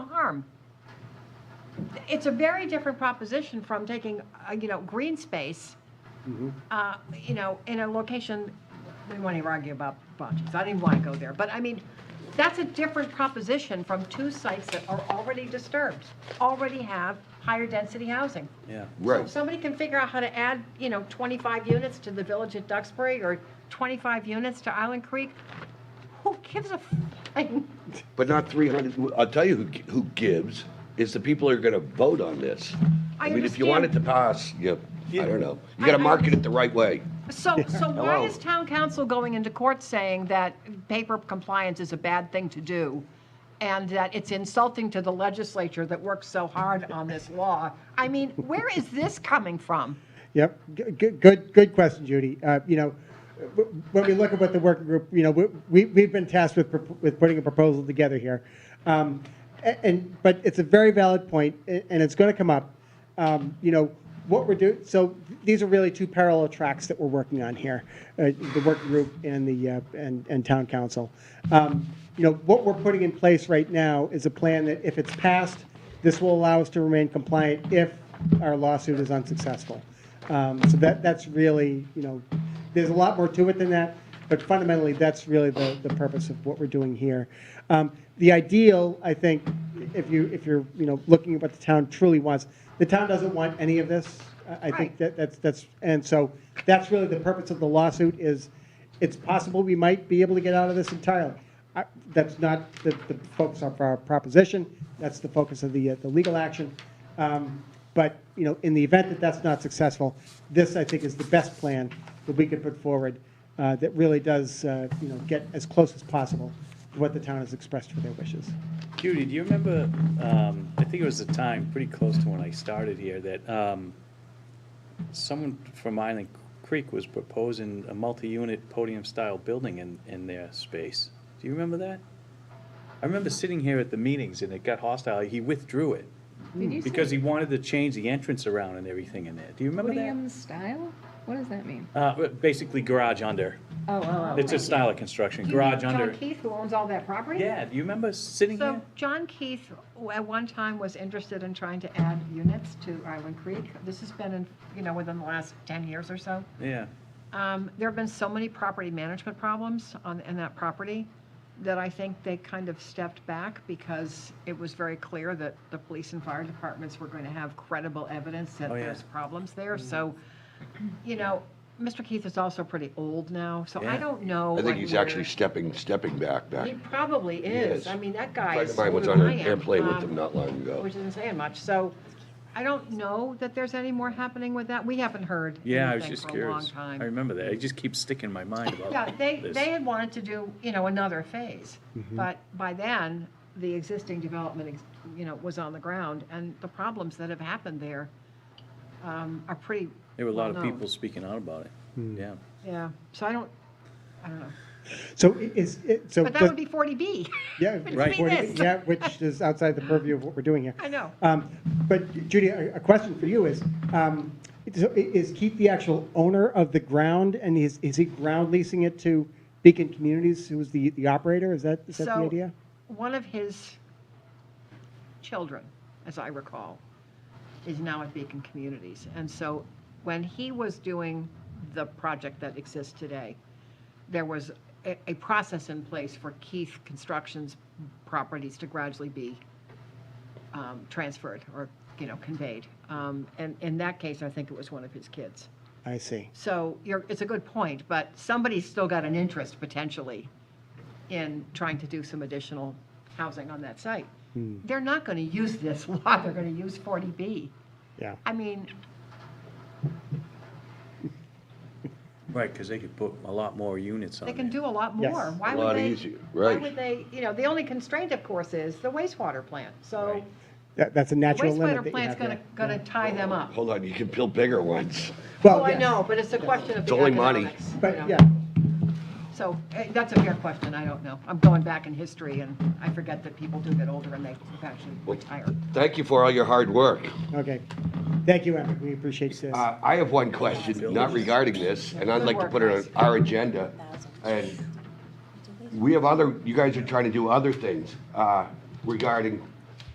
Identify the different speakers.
Speaker 1: farm. It's a very different proposition from taking, uh, you know, green space, uh, you know, in a location, we won't even argue about projects, I didn't even want to go there, but I mean, that's a different proposition from two sites that are already disturbed, already have higher density housing.
Speaker 2: Yeah.
Speaker 1: So if somebody can figure out how to add, you know, 25 units to the village at Duxbury or 25 units to Island Creek, who gives a flying?
Speaker 3: But not 300, I'll tell you who, who gives, is the people who are going to vote on this.
Speaker 1: I
Speaker 3: mean, if you want it to pass, you, I don't know. You got
Speaker 1: I-
Speaker 3: to
Speaker 1: I-
Speaker 3: market it the right way.
Speaker 1: So, so why
Speaker 3: Hello.
Speaker 1: is town council going into court saying that paper compliance is a bad thing to do? And that it's insulting to the legislature that works so hard on this law? I mean, where is this coming from?
Speaker 4: Yep, G- g- good, good question, Judy. Uh, You know, w- when we look at what the working group, you know, we- we, we've been tasked with, prop- with putting a proposal together here. Um, a- And, but it's a very valid point, a- and it's going to come up. Um, You know, what we're doing, so these are really two parallel tracks that we're working on here, uh, the working group and the, uh, and, and town council. Um, You know, what we're putting in place right now is a plan that if it's passed, this will allow us to remain compliant if our lawsuit is unsuccessful. Um, So that, that's really, you know, there's a lot more to it than that, but fundamentally, that's really the, the purpose of what we're doing here. Um, The ideal, I think, if you, if you're, you know, looking at what the town truly wants, the town doesn't want any of this. I- I think
Speaker 1: Right.
Speaker 4: that, that's, that's, and so that's really the purpose of the lawsuit is, it's possible we might be able to get out of this entirely. I- That's not the, the focus of our proposition, that's the focus of the, uh, the legal action. Um, But, you know, in the event that that's not successful, this, I think, is the best plan that we could put forward uh, that really does, uh, you know, get as close as possible to what the town has expressed for their wishes.
Speaker 2: Judy, do you remember, um, I think it was a time pretty close to when I started here, that, um, someone from Island Creek was proposing a multi-unit podium-style building in, in their space. Do you remember that? I remember sitting here at the meetings and it got hostile. He withdrew it
Speaker 5: Did you
Speaker 2: because
Speaker 5: say
Speaker 2: he wanted to change the entrance around and everything in there. Do you remember that?
Speaker 5: podium style? What does that mean?
Speaker 2: Uh, basically garage under.
Speaker 5: Oh, oh,
Speaker 2: It's a style of construction, garage under.
Speaker 1: John Keith, who owns all that property?
Speaker 2: Yeah, do you remember sitting
Speaker 1: So
Speaker 2: here?
Speaker 1: John Keith, w- at one time, was interested in trying to add units to Island Creek. This has been in, you know, within the last 10 years or so.
Speaker 2: Yeah.
Speaker 1: Um, There have been so many property management problems on, in that property that I think they kind of stepped back because it was very clear that the police and fire departments were going to have credible evidence that
Speaker 2: Oh, yeah. Mm-hmm.
Speaker 1: there's problems there. So, you know, Mr. Keith is also pretty old now, so I
Speaker 2: Yeah.
Speaker 1: don't know.
Speaker 3: I
Speaker 1: like,
Speaker 3: think he's
Speaker 1: where-
Speaker 3: actually stepping, stepping back, back.
Speaker 1: He probably is.
Speaker 3: is.
Speaker 1: I mean, that
Speaker 3: A
Speaker 1: guy
Speaker 3: friend
Speaker 1: is.
Speaker 3: of mine was
Speaker 1: older
Speaker 3: on
Speaker 1: than
Speaker 3: an
Speaker 1: I am,
Speaker 3: airplane with
Speaker 1: um,
Speaker 3: him not long ago.
Speaker 1: Which isn't saying much, so I don't know that there's any more happening with that. We haven't heard
Speaker 2: Yeah, I was
Speaker 1: anything for
Speaker 2: just
Speaker 1: a long
Speaker 2: curious. I
Speaker 1: time.
Speaker 2: remember that. It just keeps sticking in my mind
Speaker 1: Yeah,
Speaker 2: about
Speaker 1: they,
Speaker 2: this.
Speaker 1: they had wanted to do, you know, another phase, but by then, the existing development, ex- you know, was on the ground, and the problems that have happened there um, are pretty.
Speaker 2: There were a lot of
Speaker 1: well-known.
Speaker 2: people speaking out about it. Yeah.
Speaker 1: Yeah, so I don't, I don't know,
Speaker 4: So i- is, it- so.
Speaker 1: but that
Speaker 4: does-
Speaker 1: would be 40B.
Speaker 4: Yeah,
Speaker 1: Which
Speaker 2: Right.
Speaker 1: would be
Speaker 4: 40
Speaker 1: this.
Speaker 4: Yeah, which is outside the purview of what we're doing here.
Speaker 1: I know.
Speaker 4: Um, But Judy, a a question for you is, um, so i- is Keith the actual owner of the ground, and is, is he ground leasing it to Beacon Communities, who is the, the operator? Is that, is that the
Speaker 1: So,
Speaker 4: idea?
Speaker 1: One of his children, as I recall, is now at Beacon Communities. And so when he was doing the project that exists today, there was a, a process in place for Keith Construction's properties to gradually be um, transferred or, you know, conveyed. Um, And in that case, I think it was one of his kids.
Speaker 4: I see.
Speaker 1: So you're, it's a good point, but somebody's still got an interest potentially in trying to do some additional housing on that site.
Speaker 4: Hmm.
Speaker 1: They're not going to use this lot, they're going to use 40B.
Speaker 4: Yeah.
Speaker 1: I mean,
Speaker 2: Right, because they could put a lot more units on
Speaker 1: they
Speaker 2: there.
Speaker 1: can do a lot
Speaker 4: Yes.
Speaker 1: more. Why
Speaker 3: A
Speaker 1: would
Speaker 3: lot
Speaker 1: they-
Speaker 3: easier,
Speaker 1: Why
Speaker 3: right.
Speaker 1: would they, you know, the only constraint, of course, is the wastewater plant. So
Speaker 2: Right.
Speaker 4: That, that's a
Speaker 1: the
Speaker 4: natural
Speaker 1: wastewater
Speaker 4: limit that you
Speaker 1: plant's
Speaker 4: have
Speaker 1: going to,
Speaker 4: there.
Speaker 1: going to tie them up.
Speaker 3: Hold on, you can build bigger ones.
Speaker 1: Oh, I
Speaker 4: yes.
Speaker 1: know, but it's a question of
Speaker 3: It's
Speaker 1: the
Speaker 3: only money.
Speaker 1: economics. you know.
Speaker 4: But, yeah,
Speaker 1: So eh, that's a fair question, I don't know. I'm going back in history, and I forget that people do get older and they actually
Speaker 3: Well,
Speaker 1: retire.
Speaker 3: Thank you for all your hard work.
Speaker 4: okay. Thank you, Emmett, we appreciate this.
Speaker 3: Uh, I have one question, not regarding this, and I'd like to put it on our agenda. And we have other, you guys are trying to do other things uh, regarding